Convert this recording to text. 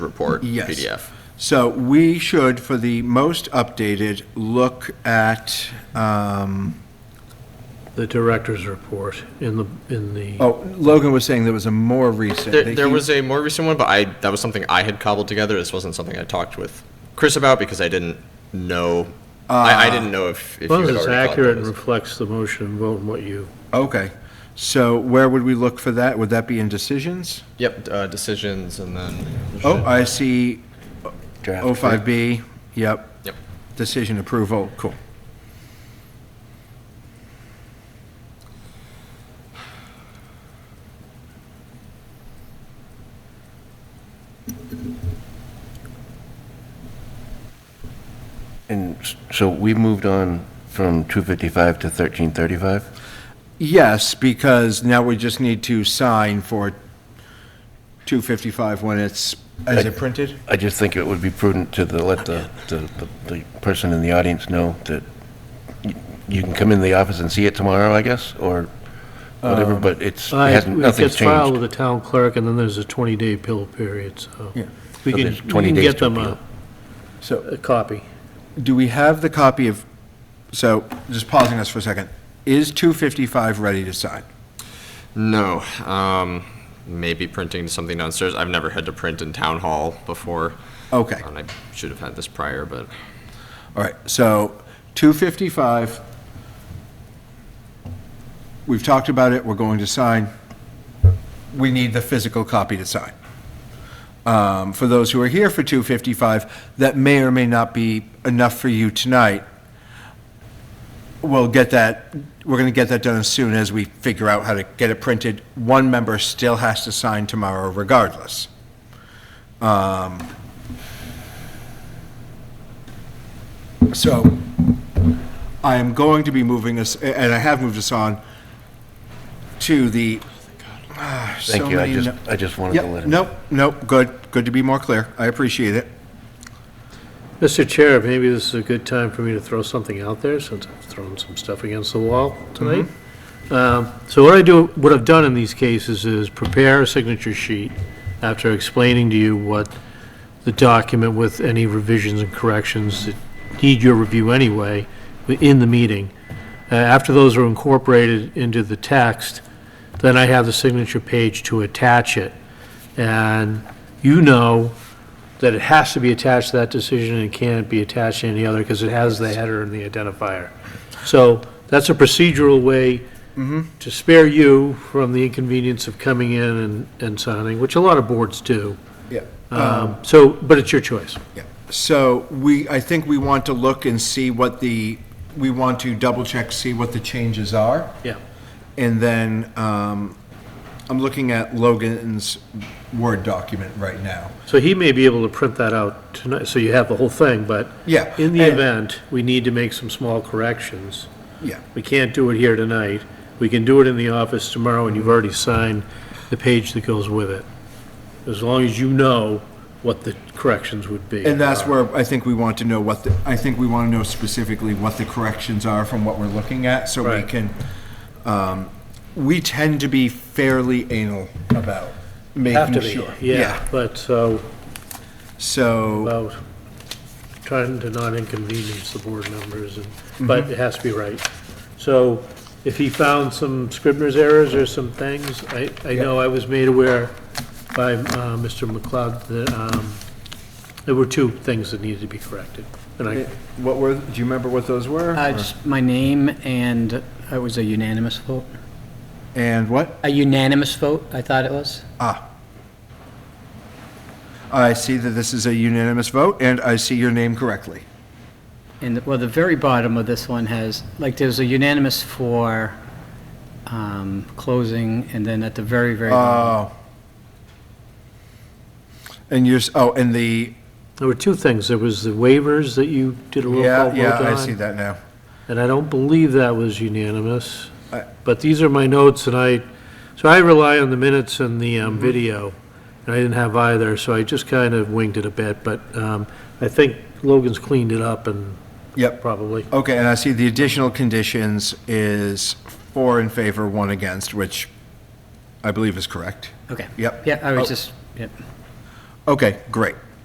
report Yes. PDF. So we should, for the most updated, look at, um, the director's report in the, in the, oh, Logan was saying there was a more recent. There, that there he- was a more recent one, but I that was something I had cobbled together. This wasn't something I talked with Chris about because I didn't know. I, I didn't know if, if you as long had as it's already thought Uh, accurate about and this. reflects the motion and vote and what you, Okay, so where would we look for that? Would that be in decisions? Yep, uh, decisions and then. Oh, I see Draft. Oh, 05B, yep, Yep. decision approval, cool. And s- so we moved on from 255 to 1335? Yes, because now we just need to sign for 255 when it's, is it printed? I just think it would be prudent to the- let the, the- the- the person in the audience know that y- you can come in the office and see it tomorrow, I guess, or whatever, but it's, it Um, I- hasn't, it nothing's gets filed with changed. the town clerk, and then there's a 20-day appeal period, so. Yeah. We So can, there's we 20 can days get to them a, appeal. So a copy. do we have the copy of, so just pausing us for a second, is 255 ready to sign? No, um, maybe printing something downstairs. I've never had to print in town hall before. Okay, And I should have had this prior, but all right, so 255, we've talked about it, we're going to sign. We need the physical copy to sign. Um, For those who are here for 255, that may or may not be enough for you tonight. We'll get that, we're going to get that done as soon as we figure out how to get it printed. One member still has to sign tomorrow regardless. Um, So I am going to be moving us, and I have moved us on to the, ah, so Thank you, I many just, no- I just wanted to let Yep, him. nope, nope, good, good to be more clear, I appreciate it. Mr. Chair, maybe this is a good time for me to throw something out there, since I've thrown some stuff against the wall tonight. Um, So what I do, what I've done in these cases is prepare a signature sheet after explaining to you what the document with any revisions and corrections that need your review anyway, in the meeting. Uh, After those are incorporated into the text, then I have the signature page to attach it. And you know that it has to be attached to that decision and can't be attached to any other because it has the header and the identifier. So that's a procedural way to spare you from the inconvenience of coming in and, and signing, which a lot of boards do. Yeah. Um, So, but it's your choice. Yeah. Uh, So we, I think we want to look and see what the, we want to double check, see what the changes are. Yeah. And then, um, I'm looking at Logan's Word document right now. So he may be able to print that out tonight, so you have the whole thing, but Yeah, in the and- event, we need to make some small corrections. Yeah. We can't do it here tonight. We can do it in the office tomorrow, and you've already signed the page that goes with it. As long as you know what the corrections would be. And that's where I think we want to know what the, I think we want to know specifically what the corrections are from what we're looking at, so we Right. can, um, we tend to be fairly anal about Have to making be, sure. Yeah, but so, So. about trying to not inconvenience the board members, and- but Mm-hmm. it has to be right. So if he found some Scribner's errors or some things, I, I know I was made aware by uh, Mr. McLeod that um, there were two things that needed to be corrected. And I, What were, do you remember what those were? Uh, Just my name, and it was a unanimous vote. And what? A unanimous vote, I thought it was. Ah. I see that this is a unanimous vote, and I see your name correctly. And, well, the very bottom of this one has, like, there's a unanimous for um, closing, and then at the very, very bottom. Oh. And yours, oh, and the, there were two things. There was the waivers that you did a roll call yeah, vote yeah, I on, see that now. And I don't believe that was unanimous. I- But these are my notes, and I, so I rely on the minutes and the um, Mm-hmm. video, and I didn't have either, so I just kind of winged it a bit, but um, I think Logan's cleaned it up and Yep. probably. Okay, and I see the additional conditions is four in favor, one against, which I believe is correct. Okay. Yep. Yeah, I Oh. was just, yep. Okay, great.